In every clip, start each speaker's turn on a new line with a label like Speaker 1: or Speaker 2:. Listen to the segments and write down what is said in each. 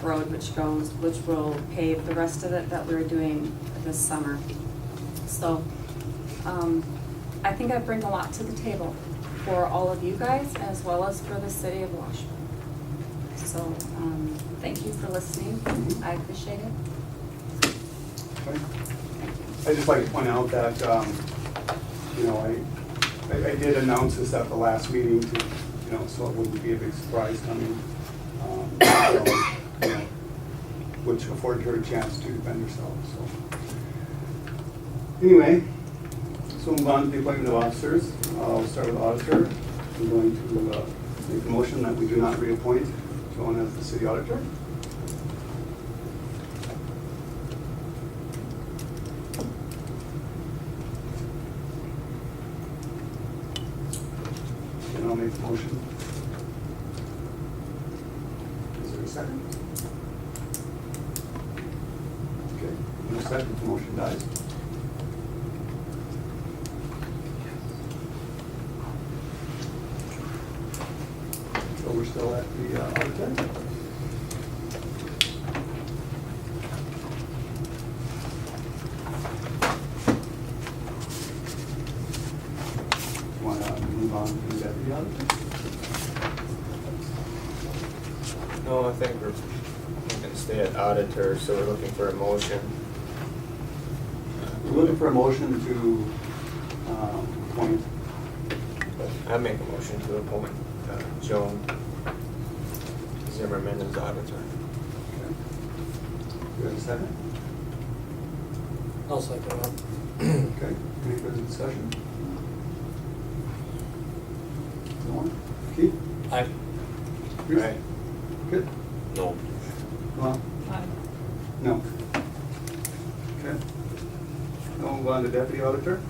Speaker 1: Road, which goes, which will pave the rest of it that we're doing this summer. So, um, I think I bring a lot to the table for all of you guys as well as for the city of Washburn. So, um, thank you for listening. I appreciate it.
Speaker 2: I'd just like to point out that, um, you know, I, I I did announce this at the last meeting to, you know, so it wouldn't be a big surprise coming. um, so, you know, Which afforded her a chance to defend herself, so. Anyway, so move on to the appointment of officers. I'll start with auditor. I'm going to uh, make a motion that we do not reappoint Joan as the city auditor. And I'll make the motion. Is there a second? Okay, no second, the motion dies. So we're still at the uh, auditor? Want to move on to deputy auditor?
Speaker 3: No, I think we're, we can stay at auditor, so we're looking for a motion.
Speaker 2: We're looking for a motion to um, appoint,
Speaker 3: I make a motion to appoint uh, Joan Zimmerman as auditor.
Speaker 2: okay. Do we have a second?
Speaker 4: I'll second that.
Speaker 2: Okay, any further discussion? No one? Keith?
Speaker 4: Aye.
Speaker 2: Bruce?
Speaker 3: Aye.
Speaker 2: Good?
Speaker 4: No.
Speaker 2: Well,
Speaker 5: Uh,
Speaker 2: no. Okay. Now move on to deputy auditor.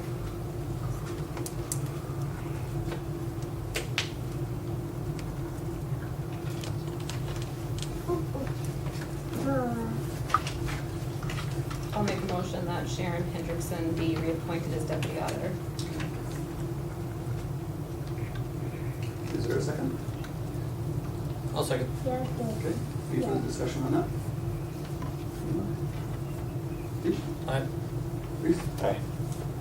Speaker 5: I'll make a motion that Sharon Hendrickson be reappointed as deputy auditor.
Speaker 2: Is there a second?
Speaker 4: I'll second.
Speaker 2: Okay, any further discussion on that? Keith?
Speaker 4: Aye.
Speaker 2: Bruce?
Speaker 3: Aye.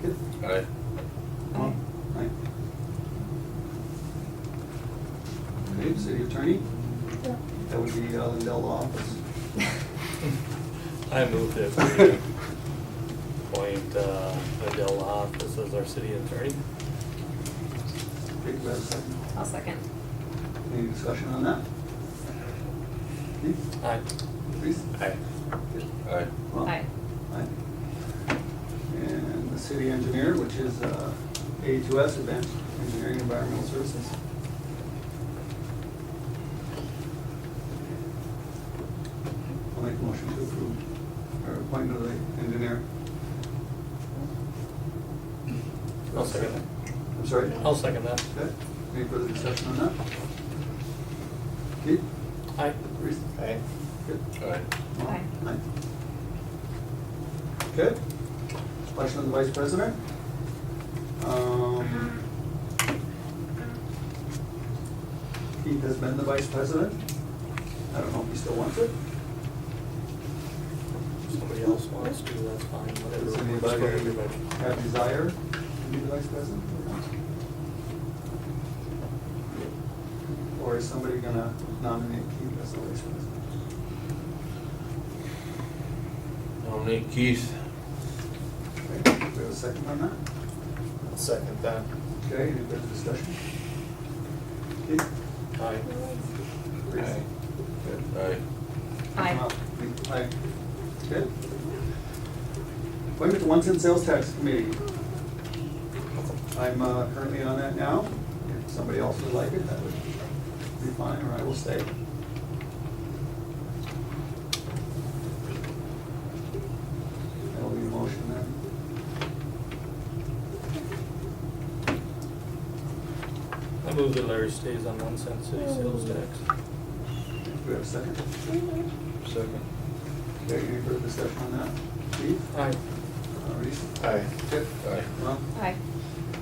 Speaker 2: Good?
Speaker 4: Aye.
Speaker 2: Well, Right. Okay, city attorney? That would be uh, Lindell office.
Speaker 6: I move that we appoint uh, Adele Hoff as our city attorney.
Speaker 2: Okay, do we have a second?
Speaker 5: I'll second.
Speaker 2: Any discussion on that? Keith?
Speaker 4: Aye.
Speaker 2: Please?
Speaker 3: Aye.
Speaker 4: Aye.
Speaker 2: Well,
Speaker 5: Aye.
Speaker 2: Aye. And the city engineer, which is uh, A2S, Advanced Engineering Environmental Services. I'll make a motion to approve our appointment of the engineer.
Speaker 4: I'll second that.
Speaker 2: I'm sorry?
Speaker 4: I'll second that.
Speaker 2: Okay, any further discussion on that? Keith?
Speaker 4: Aye.
Speaker 2: Reese?
Speaker 3: Aye.
Speaker 2: Good.
Speaker 4: Aye.
Speaker 2: Well,
Speaker 5: Aye.
Speaker 2: Aye. Okay. Election of the vice president. Um, Keith has been the vice president. I don't know if he still wants it.
Speaker 4: If Somebody else wants to, that's fine, whatever.
Speaker 2: Does
Speaker 4: works for
Speaker 2: anybody
Speaker 4: everybody.
Speaker 2: have desire to be the vice president? Or is somebody gonna nominate Keith as the vice president?
Speaker 7: Nominate Keith.
Speaker 2: Okay, do we have a second on that?
Speaker 3: I'll Second that.
Speaker 2: Okay, any further discussion? Keith?
Speaker 4: Aye.
Speaker 2: Reese?
Speaker 3: Aye.
Speaker 2: Good.
Speaker 7: Aye.
Speaker 5: Aye.
Speaker 2: Aye. Good. Appointment to one cent sales tax committee. I'm uh, currently on that now. If somebody else would like it, that would be fine, or I will stay. That'll be a motion then.
Speaker 4: I move that Larry stays on one cent city sales tax.
Speaker 2: Do we have a second?
Speaker 3: Second.
Speaker 2: Okay, any further discussion on that? Keith?
Speaker 4: Aye.
Speaker 2: Uh, Reese?
Speaker 3: Aye.
Speaker 2: Kip?
Speaker 7: Aye.
Speaker 2: Ron?
Speaker 5: Aye.
Speaker 2: Uh,